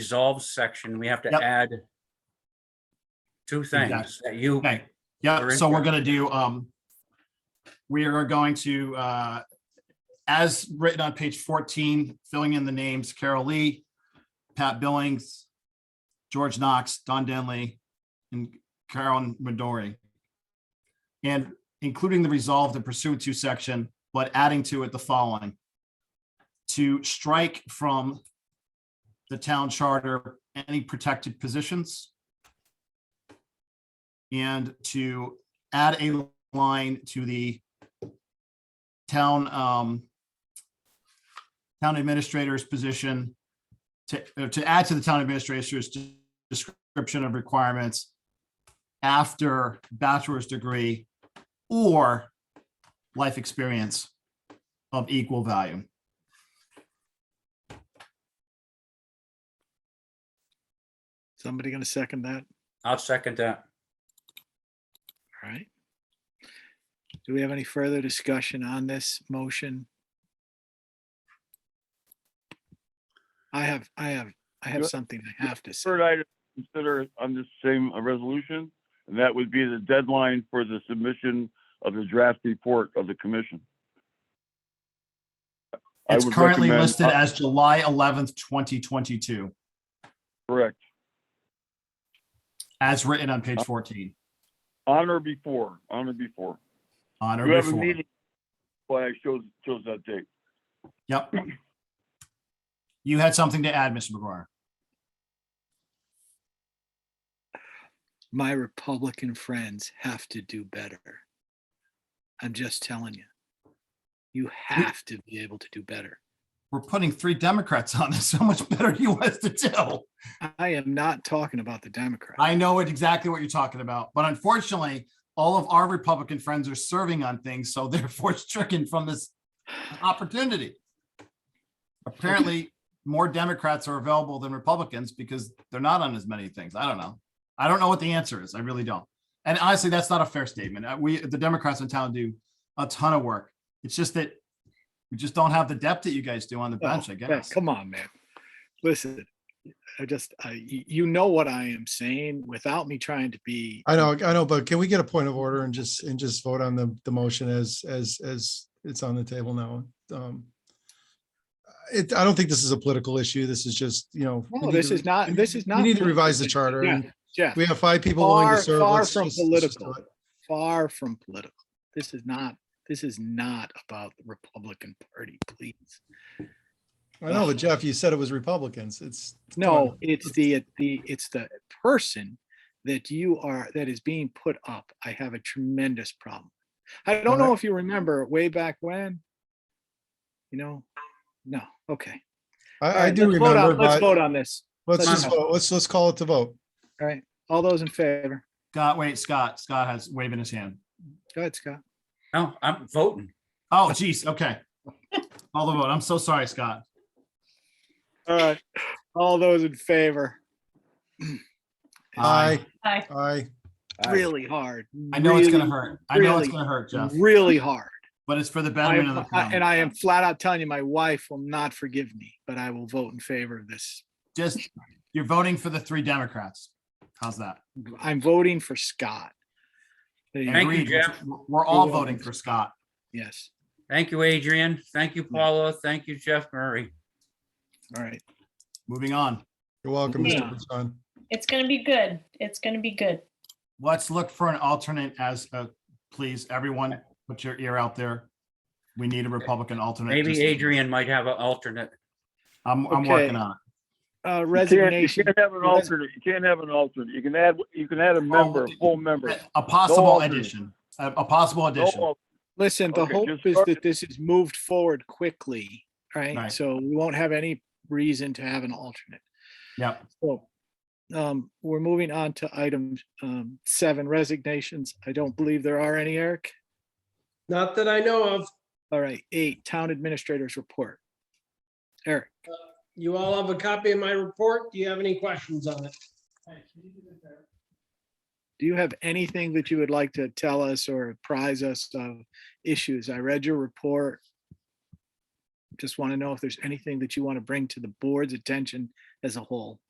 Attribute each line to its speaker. Speaker 1: resolve section, we have to
Speaker 2: Yep.
Speaker 1: add two things that you,
Speaker 2: Okay, yeah,
Speaker 1: Or
Speaker 2: so we're
Speaker 1: incorrect.
Speaker 2: gonna do, um, we are going to, uh, as written on page fourteen, filling in the names Carol Lee, Pat Billings, George Knox, Don Denley, and Carolyn Midori. And including the resolved and pursuant to section, but adding to it the following. To strike from the town charter any protected positions and to add a line to the town, um, town administrator's position to, uh, to add to the town administrator's de- description of requirements after bachelor's degree or life experience of equal value.
Speaker 3: Somebody gonna second that?
Speaker 1: I'll second that.
Speaker 3: All right. Do we have any further discussion on this motion? I have, I have, I have
Speaker 4: Yeah.
Speaker 3: something I have to say.
Speaker 4: Third item, to consider on this same uh, resolution, and that would be the deadline for the submission of the draft report of the commission. I
Speaker 2: It's
Speaker 4: would
Speaker 2: currently
Speaker 4: recommend-
Speaker 2: listed
Speaker 4: uh,
Speaker 2: as July eleventh, twenty twenty-two,
Speaker 4: Correct.
Speaker 2: as written on page fourteen.
Speaker 4: On or before, on or before.
Speaker 2: On or
Speaker 4: You have a
Speaker 2: before.
Speaker 4: meeting. Why I chose, chose that date.
Speaker 2: Yep. You had something to add, Mr. McGuire.
Speaker 3: My Republican friends have to do better. I'm just telling you. You have to be able to do better.
Speaker 2: We're putting three Democrats on this. How much better do you want us to do?
Speaker 3: I am not talking about the Democrats.
Speaker 2: I know it exactly what you're talking about, but unfortunately, all of our Republican friends are serving on things, so therefore stricken from this opportunity. Apparently, more Democrats are available than Republicans because they're not on as many things. I don't know. I don't know what the answer is. I really don't. And honestly, that's not a fair statement. Uh, We, the Democrats in town do a ton of work. It's just that we just don't have the depth that you guys do on the bench, I
Speaker 3: Oh,
Speaker 2: guess.
Speaker 3: Come on, man. Listen, I just, I, you you know what I am saying without me trying to be.
Speaker 5: I know, I know, but can we get a point of order and just, and just vote on the, the motion as, as, as it's on the table now? Um It, I don't think this is a political issue. This is just, you know. we
Speaker 3: No,
Speaker 5: need
Speaker 3: this
Speaker 5: to-
Speaker 3: is not, this is not.
Speaker 5: We need to revise the
Speaker 3: political.
Speaker 5: charter.
Speaker 3: Yeah,
Speaker 5: and
Speaker 3: Jeff,
Speaker 5: We have five people willing
Speaker 3: Far-
Speaker 5: to serve.
Speaker 3: far
Speaker 5: Let's
Speaker 3: from
Speaker 5: just- let's just do
Speaker 3: political.
Speaker 5: it.
Speaker 3: far from political. This is not, this is not about the Republican Party, please.
Speaker 5: I know, but Jeff, you said it was Republicans. It's.
Speaker 3: No, it's the, the, it's the person that you are, that is being put up. I have a tremendous problem. I don't know if you remember way back when. You know, no, okay. All
Speaker 5: I, I
Speaker 3: right,
Speaker 5: do
Speaker 3: let's vote on-
Speaker 5: remember,
Speaker 3: Let's
Speaker 5: but
Speaker 3: vote on this.
Speaker 5: let's
Speaker 3: let's
Speaker 5: just,
Speaker 3: vote.
Speaker 5: vote. let's, let's call it to vote.
Speaker 3: All right, all those in favor?
Speaker 2: Scott, wait, Scott, Scott has waving his hand.
Speaker 3: Go ahead, Scott.
Speaker 1: No, I'm voting.
Speaker 2: Oh, geez, okay. All the vote. I'm so sorry, Scott.
Speaker 3: All right, all those in favor?
Speaker 5: Aye.
Speaker 6: Aye.
Speaker 5: Aye.
Speaker 1: Aye.
Speaker 3: Really hard.
Speaker 2: I know it's gonna
Speaker 3: really,
Speaker 2: hurt. I know it's
Speaker 3: really,
Speaker 2: gonna hurt, Jeff,
Speaker 3: Really hard.
Speaker 2: but it's for the
Speaker 3: I
Speaker 2: betterment of the
Speaker 3: am- I- And
Speaker 2: town.
Speaker 3: I am flat out telling you, my wife will not forgive me, but I will vote in favor of this.
Speaker 2: Just, you're voting for the three Democrats. How's that?
Speaker 3: I'm voting for Scott. There you go.
Speaker 1: Thank you,
Speaker 2: Agreed.
Speaker 1: Jeff.
Speaker 2: We're all
Speaker 3: You're welcome.
Speaker 2: voting for Scott.
Speaker 3: Yes,
Speaker 1: Thank you, Adrian. Thank you, Paula. Thank you, Jeff Murray.
Speaker 3: all right.
Speaker 2: Moving on.
Speaker 5: You're welcome,
Speaker 6: Yeah.
Speaker 5: Mr. Busan.
Speaker 6: It's gonna be good. It's gonna be good.
Speaker 2: Let's look for an alternate as, a please, everyone, put your ear out there. We need a Republican alternate.
Speaker 1: Maybe
Speaker 2: Just-
Speaker 1: Adrian might have an alternate.
Speaker 2: I'm, I'm
Speaker 3: Okay.
Speaker 2: working on it.
Speaker 3: Uh,
Speaker 4: You can't- You
Speaker 3: resignation.
Speaker 4: can't have an
Speaker 3: Resign-
Speaker 4: alternate. You can't have an alternate. You can add, you can add a member, a full member.
Speaker 2: A possible
Speaker 4: alternate.
Speaker 2: addition, a, a possible
Speaker 4: No
Speaker 2: addition.
Speaker 4: al-
Speaker 3: Listen, the
Speaker 4: Okay,
Speaker 3: hope
Speaker 4: just
Speaker 3: is
Speaker 4: start
Speaker 3: that
Speaker 4: it.
Speaker 3: this is moved forward quickly, right?
Speaker 2: Right.
Speaker 3: So we won't have any reason to have an alternate.
Speaker 2: Yep.
Speaker 3: So um, we're moving on to item um, seven, resignations. I don't believe there are any, Eric.
Speaker 7: Not that I know of.
Speaker 3: All right, eight, town administrators report. Eric,
Speaker 7: You all have a copy of my report. Do you have any questions on it?
Speaker 3: do you have anything that you would like to tell us or apprise us of issues? I read your report. Just want to know if there's anything that you want to bring to the board's attention as a whole.